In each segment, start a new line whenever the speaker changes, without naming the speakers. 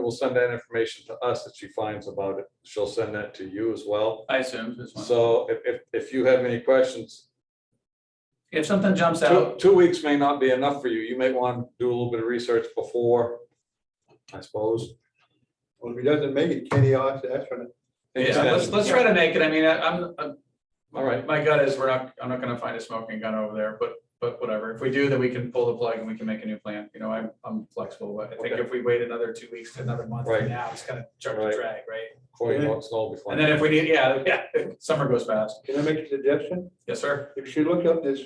will send that information to us that she finds about it. She'll send that to you as well.
I assume this one.
So if, if, if you have any questions,
If something jumps
two,
out,
two weeks may not be enough for you. You may want to do a little bit of research before, I suppose.
Well, if he doesn't make it, Kenny will have to ask for it.
yeah, let's, let's try to make it. I mean, I- I'm, I'm.
All right.
My gut is we're not, I'm not gonna find a smoking gun over there, but, but whatever. If we do, then we can pull the plug and we can make a new plan. You know, I'm, I'm flexible, but I think
Okay.
if we wait another two weeks to another month
Right.
from now, it's gonna start to
Right.
drag, right?
Corey wants to know before.
And then if we need, yeah, yeah, summer goes fast.
Can I make a suggestion?
Yes, sir.
If you look up this,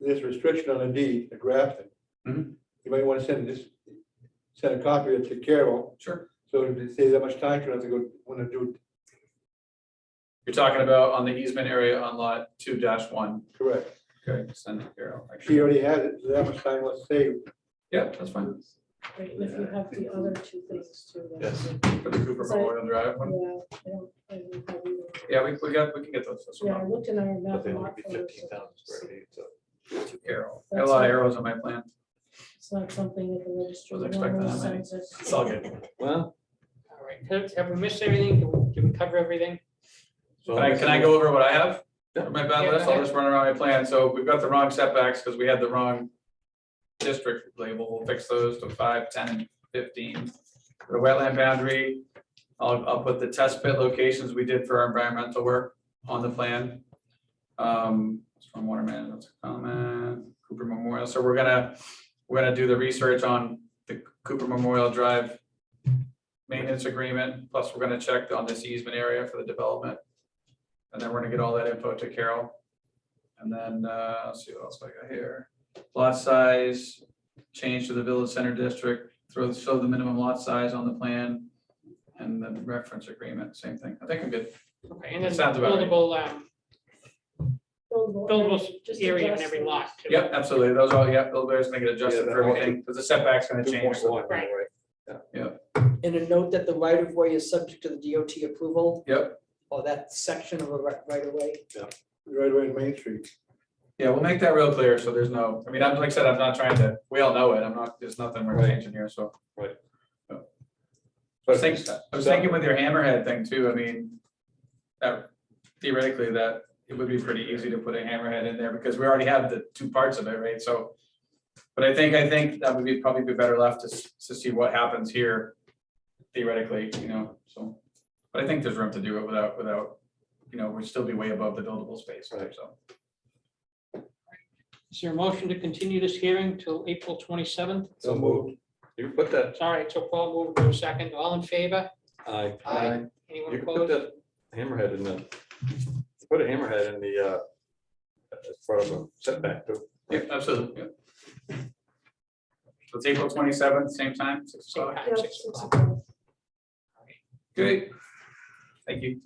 this restriction on a deed, the Grafton.
Mhm.
You might want to send this, send a copy of it to Carol,
Sure.
so if it saves that much time, you don't have to go, want to do
You're talking about on the easement area on lot two dash one.
it correct.
Okay, send it here. I'll actually-
She already has it, so that much time was saved.
Yeah, that's fine.
Right, if you have the other two things too. then-
Yes.
For the Cooper
Sorry.
Memorial Drive one.
Yeah, I don't, I don't have either.
Yeah, we, we got, we can get those. that's no
Yeah, I
problem.
looked in our map.
But they only
lot
be
photos,
fifteen thousand square feet, so.
Two arrow. Got a
That's
lot
fine.
of arrows on my plan.
It's not something that the registry.
Wasn't expecting that many.
normally sends us.
It's all good.
Well.
All right, have, have we missed everything? Did we- Did we cover everything?
so-
Can I, can I go over what I have?
Yeah.
My bad
Yeah,
list,
go
I'll
ahead.
just run around my plan. So we've got the wrong setbacks because we had the wrong district label. We'll fix those to five, ten, and fifteen. The wetland boundary, I'll, I'll put the test pit locations we did for our environmental work on the plan. Um, stormwater management, comment, Cooper Memorial. So we're gonna, we're gonna do the research on the Cooper Memorial Drive maintenance agreement, plus we're gonna check on this easement area for the development. And then we're gonna get all that info to Carol. And then, uh, let's see what else I got here. Lot size, change to the village center district, throw, show the minimum lot size on the plan. And then reference agreement, same thing. I think I'm good.
Okay, and then
Sounds about right.
buildable, um, buildable
just
area in
adjust
every
them.
lot. too.
Yep, absolutely. Those are, yeah, Bill Bear's gonna get adjusted
Yeah,
for
that-
everything, because the setback's gonna change.
2.1,
Right.
And a note that the right of way is subject to the DOT approval
Yep,
or that section of a right right of way.
Right away in Main Street.
yeah, we'll make that real clear, so there's no, I mean, I'm, like I said, I'm not trying to, we all know it. I'm not, there's nothing we're
Right.
changing here, so. I
But
was thinking, I was thinking with your hammerhead thing too, I mean, that theoretically, that it would be pretty easy to put a hammerhead in there because we already have the two parts of it, right? So. But I think, I think that would be probably be better left to, s- to see what happens here theoretically, you know, so. But I think there's room to do it without, without, you know, we'd still be way above the buildable space,
Right.
so.
Is there a motion to continue this hearing till April twenty-seventh?
So moved. You put that,
Sorry, so Paul moved to a second. All in favor?
I,
Aye.
you
Anyone
can put
opposed?
that hammerhead in the, put a hammerhead in the, uh, as part of a setback too.
Yeah, absolutely, yeah. So it's April twenty seventh, same time, six
Same
o'clock.
time,
Yeah,
six
it's
o'clock.
about-
Great. Thank you.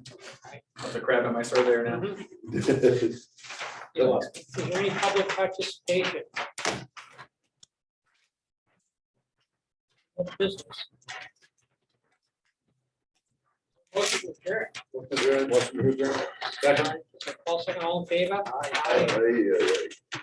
Put the crab in my surveyor now.
Mhm. Is there any public participation? What business? Motion to adjourn.
What's the- what's the-
Paul second, all in favor? Aye.
Ay, ay, ay.